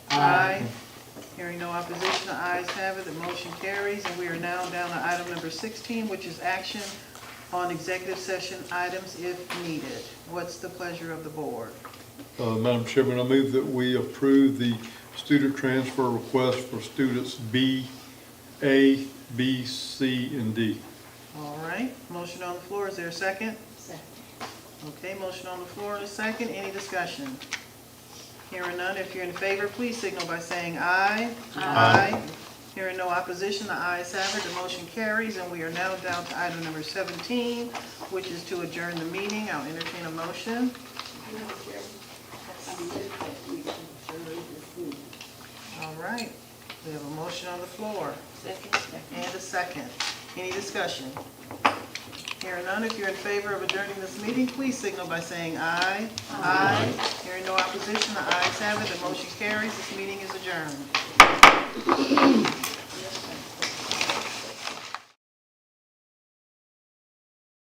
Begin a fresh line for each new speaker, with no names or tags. Hearing no opposition, the ayes have it, the motion carries, and we are now down to item number 16, which is action on executive session items if needed. What's the pleasure of the board?
Uh, Madam Chairman, I move that we approve the student transfer request for students B, A, B, C, and D.
All right, motion on the floor, is there a second?
Second.
Okay, motion on the floor and a second, any discussion? Hearing none, if you're in favor, please signal by saying aye. Aye. Hearing no opposition, the ayes have it, the motion carries, and we are now down to item number 17, which is to adjourn the meeting. I'll entertain a motion.
Madam Chair, I move that we adjourn this meeting.
All right, we have a motion on the floor
Second.
and a second. Any discussion? Hearing none, if you're in favor of adjourning this meeting, please signal by saying aye. Aye. Hearing no opposition, the ayes have it, the motion carries, this meeting is adjourned.